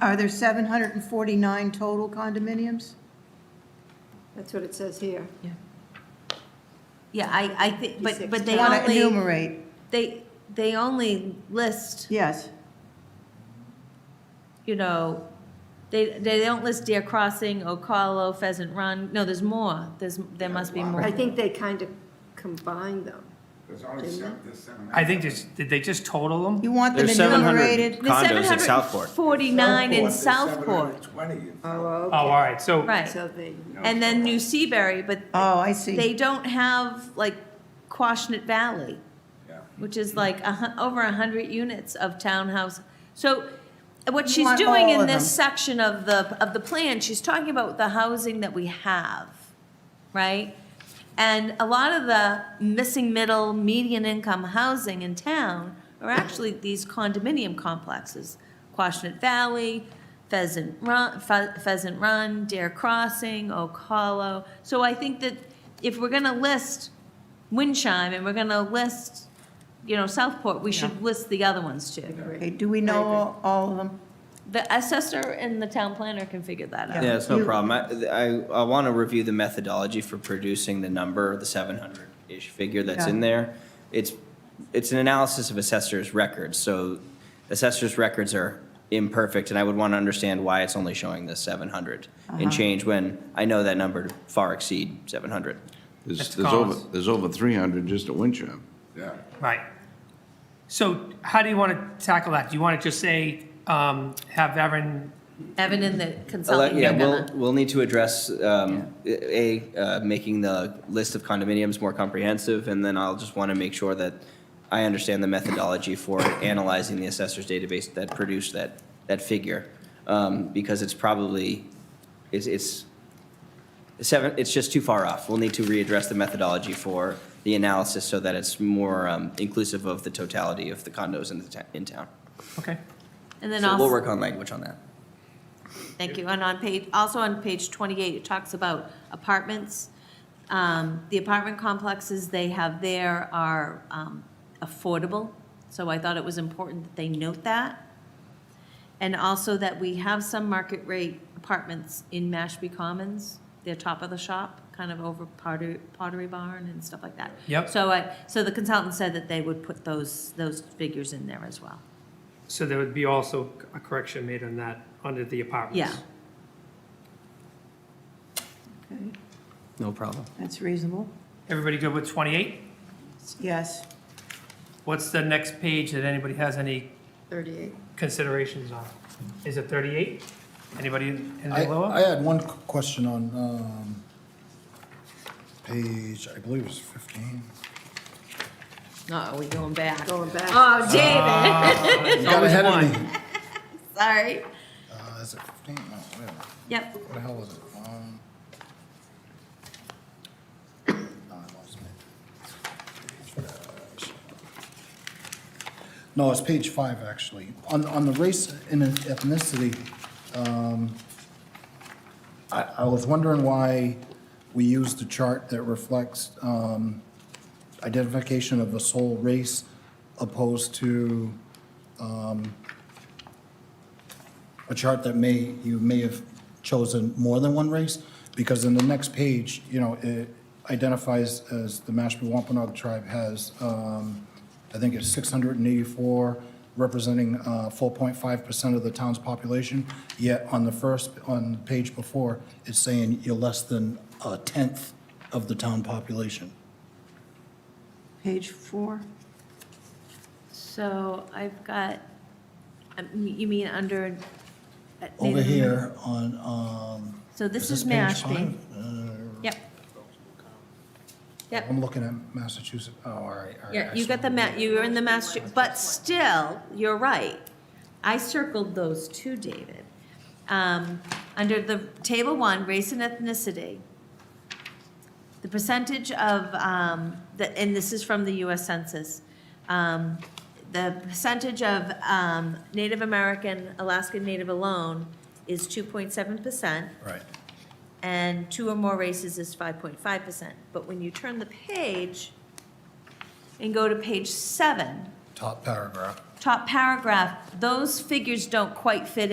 Are there 749 total condominiums? That's what it says here. Yeah, I, I think, but, but they I want to only, enumerate, they, they only list, yes. you know, they, they don't list Deer Crossing, Ocala, Pheasant Run, no, there's more, there's, there must be more. I think they kind of combine them. There's only seven, there's seven. I think just, did they just total them? You want them There's 700. enumerated? The Condos in Southport. 749 in There's Southport, 720 in Southport. Oh, Oh, all right, so. right. So they, And then New Seabury, but Oh, I they see. don't have like Quashnet Valley. Yeah. which is like a, hun- over a 100 units of townhouse. So what she's want doing all in of this them. section of the, of the plan, she's talking about the housing that we have, right? And a lot of the missing middle, median income housing in town are actually these condominium complexes. Quashnet Valley, Pheasant Run, Phe- Pheasant Run, Dare Crossing, Oak Hollow. So I think that if we're gonna list Windchime and we're gonna list, you know, Southport, we should list the other ones too. Okay, do we know all- all of them? The assessor and the town planner can figure that out. Yeah, it's no You- problem. I, I, I want to review the methodology for producing the number, the seven hundred-ish figure that's Yeah. in there. It's, it's an analysis of assessor's records, so assessor's records are imperfect, and I would want to understand why it's only showing the seven hundred Uh-huh. and change when I know that number to far exceed seven hundred. There's, That's there's over, Collins. there's over 300 just at Wincham. Yeah. Right. So how do you want to tackle that? Do you want to just say, um, have Erin, Evan and the Ele- consultant, Yeah, they're we'll, gonna- we'll need to address, um, A, uh, making the list of condominiums more comprehensive, and then I'll just want to make sure that I understand the methodology for analyzing the assessor's database that produced that, that figure. Um, Because it's probably, it's, it's seven, it's just too far off. We'll need to readdress the methodology for the analysis so that it's more um, inclusive of the totality of the condos in the, ta- in town. okay, and then So we'll also, work on language on that. thank you, and on page, also on page twenty-eight, it talks about apartments. Um, the apartment complexes they have there are, um, affordable, so I thought it was important that they note that. And also that we have some market rate apartments in Mashpee Commons, they're top of the shop, kind of over Pottery, Pottery Barn and stuff like that. Yep. So I, so the consultant said that they would put those, those figures in there as well, so there would be also a correction made on that, under the apartments. yeah. Okay, No problem. That's reasonable. Everybody good with 28? Yes. What's the next page that anybody has any 38. considerations on? Is it 38? Anybody I, anything I lower? had one qu- question on, um, page, I believe it's fifteen. Uh-oh, we going back. Going back. Oh, David, You got ahead of me. sorry. Uh, is it fifteen? No, wait a minute. Yep, What the hell is it? Um. no, I lost it. No, it's page five, actually. On, on the race and ethnicity, um, I, I was wondering why we used a chart that reflects, um, identification of a sole race opposed to, a chart that may, you may have chosen more than one race, because in the next page, you know, it identifies as the Mashpee Wampanoag tribe has, um, I think it's 684, representing uh, 4.5% of the town's population, yet on the first, on the page before, it's saying you're less than a tenth of the town population. Page four. so I've got, um, you mean under? uh, Over Native- here on, um. So this is page Mashpee. five? Uh, Yep. Yep, I'm looking at Massachusetts, oh, all right, all right. yeah, I you saw got the it. ma, you were in the master, but still, you're right. I circled those too, David. Um, under the table one, race and ethnicity, the percentage of, um, the, and this is from the US Census, um, the percentage of, um, Native American, Alaskan Native alone is two point seven percent. Right. and two or more races is five point five percent. But when you turn the page and go to page seven, top paragraph. top paragraph, those figures don't quite fit in.